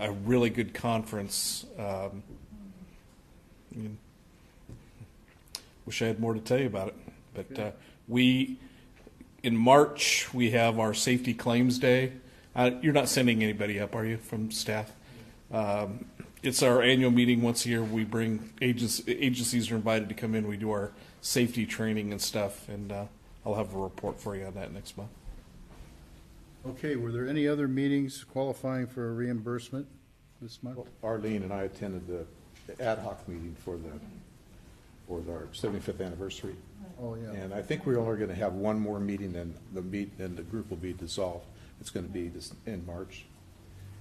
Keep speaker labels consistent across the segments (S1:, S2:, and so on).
S1: a really good conference. Um, I mean, wish I had more to tell you about it, but uh, we in March we have our safety claims day. Uh, you're not sending anybody up, are you, from staff? Um, it's our annual meeting once a year. We bring agents, agencies are invited to come in. We do our safety training and stuff, and uh, I'll have a report for you on that next month.
S2: Okay, were there any other meetings qualifying for reimbursement this month?
S3: Arlene and I attended the the ad hoc meeting for the, for our 75th anniversary.
S2: Oh, yeah.
S3: And I think we're only going to have one more meeting and the meet, and the group will be dissolved. It's going to be this, in March.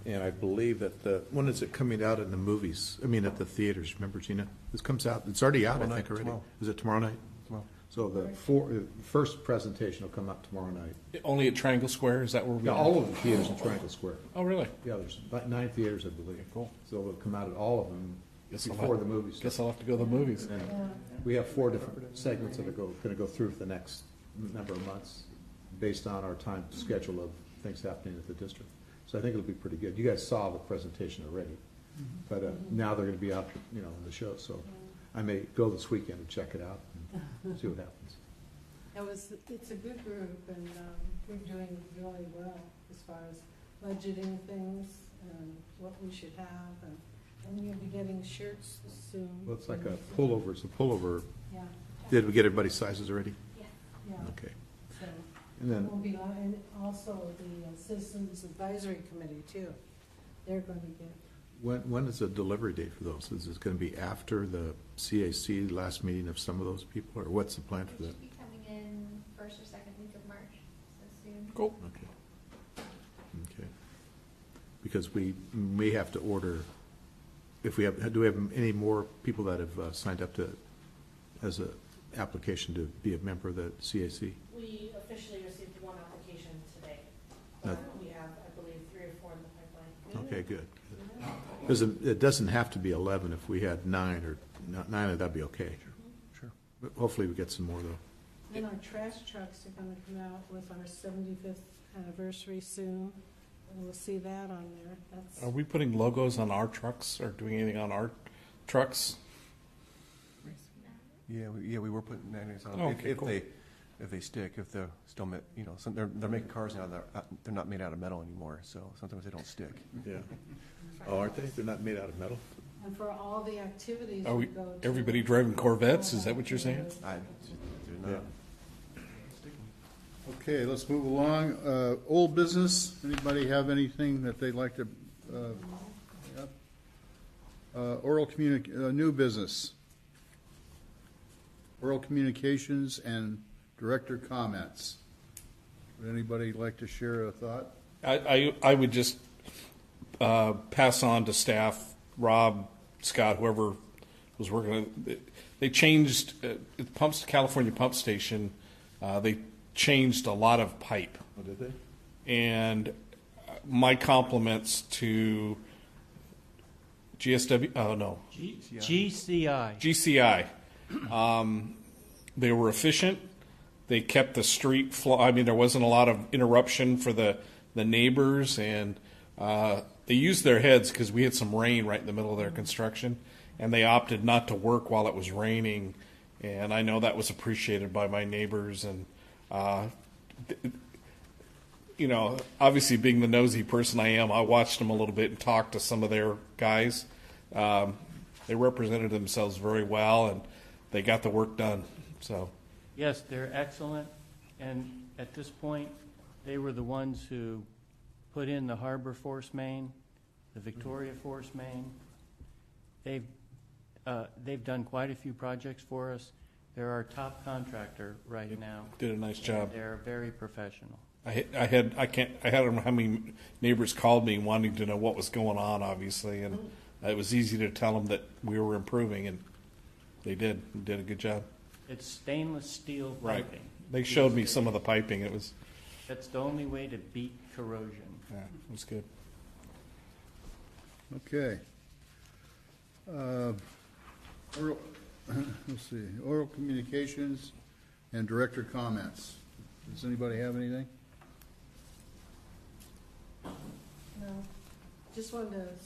S3: And I believe that the, when is it coming out in the movies? I mean, at the theaters, remember Gina? This comes out, it's already out, I think, already. Is it tomorrow night? Tomorrow. So the four, the first presentation will come out tomorrow night.
S1: Only at Triangle Square, is that where we?
S3: Yeah,
S1: are?
S3: all of the theaters in Triangle Square.
S1: Oh, really?
S3: Yeah, there's about nine theaters, I believe. Cool. So it'll come out at all of them
S1: Guess I'll
S3: before
S1: have-
S3: the movie
S1: Guess
S3: starts.
S1: I'll have to go to the movies.
S3: And we have four different segments that are go, gonna go through for the next number of months, based on our time schedule of things happening at the district. So I think it'll be pretty good. You guys saw the presentation already, but uh, now they're gonna be out, you know, in the show, so I may go this weekend and check it out and see what happens.
S4: That was, it's a good group, and um, we're doing really well as far as budgeting things and what we should have, and, and you'll be getting shirts soon.
S3: Well, it's like a pullover, it's a pullover.
S4: Yeah,
S3: Did we get everybody's sizes already?
S4: yeah,
S3: Okay.
S4: so
S3: And
S4: it
S3: then,
S4: will be, on- and also the uh, Citizens Advisory Committee too. They're going to get,
S3: When, when is the delivery date for those? Is it going to be after the CAC last meeting of some of those people, or what's the plan for
S5: They
S3: that?
S5: should be coming in first or second week of March, so soon.
S1: Cool.
S3: Okay. Okay. Because we may have to order, if we have, do we have any more people that have uh, signed up to, as a application to be a member of the CAC?
S6: We officially received one application today.
S3: Uh,
S6: We have, I believe, three or four in the pipeline.
S3: Okay, good. Because it it doesn't have to be 11. If we had nine or, n- nine, that'd be okay. Sure. But Hopefully, we get some more, though.
S4: and our trash trucks are going to come out with our seventy-fifth anniversary soon, and we'll see that on there.
S1: Are
S4: That's,
S1: we putting logos on our trucks or doing anything on our trucks?
S5: uh,
S7: Yeah, we, yeah, we were putting magnets on
S1: Oh,
S7: them, if,
S1: okay,
S7: if
S1: cool.
S7: they, if they stick, if they're still, ma- you know, some, they're, they're making cars now, they're, uh, they're not made out of metal anymore, so sometimes they don't stick.
S3: Yeah. Oh, aren't they? They're not made out of metal?
S4: and for all the activities
S1: Are
S4: we
S1: we,
S4: go to.
S1: everybody driving Corvettes? Is that what you're saying?
S7: I, they're not.
S2: Okay, let's move along. Uh, Old business, anybody have anything that they'd like to, uh, bring up? Uh, oral communic, uh, new business? Oral communications and director comments. Would anybody like to share a thought?
S1: I, I, I would just uh, pass on to staff, Rob, Scott, whoever was working. on it. They changed uh, it pumps California Pump Station. Uh, they changed a lot of pipe,
S3: Oh, did they?
S1: and uh, my compliments to GSW. Oh no,
S8: GCI.
S1: GCI. Um, they were efficient. They kept the street flow. I mean, there wasn't a lot of interruption for the, the neighbors, and uh, they used their heads because we had some rain right in the middle of their construction, and they opted not to work while it was raining. And I know that was appreciated by my neighbors, and uh, you know, obviously being the nosy person I am, I watched them a little bit and talked to some of their guys. Um, they represented themselves very well and they got the work done. So,
S8: Yes, they're excellent, and at this point, they were the ones who put in the Harbor Force Main, the Victoria Force Main. They've, uh, they've done quite a few projects for us. They're our top contractor right now.
S1: did a nice job.
S8: They're very professional.
S1: I, had- I had I can't I had how many neighbors called me wanting to know what was going on, obviously, and it was easy to tell them that we were improving, and they did did a good job.
S8: It's stainless steel
S1: Right.
S8: piping.
S1: They showed me some of the piping. It was
S8: That's the only way to beat corrosion.
S1: yeah, it was good.
S2: Okay. Uh, oral- Let's see, oral communications and director comments. Does anybody have anything?
S4: no. Just wanted to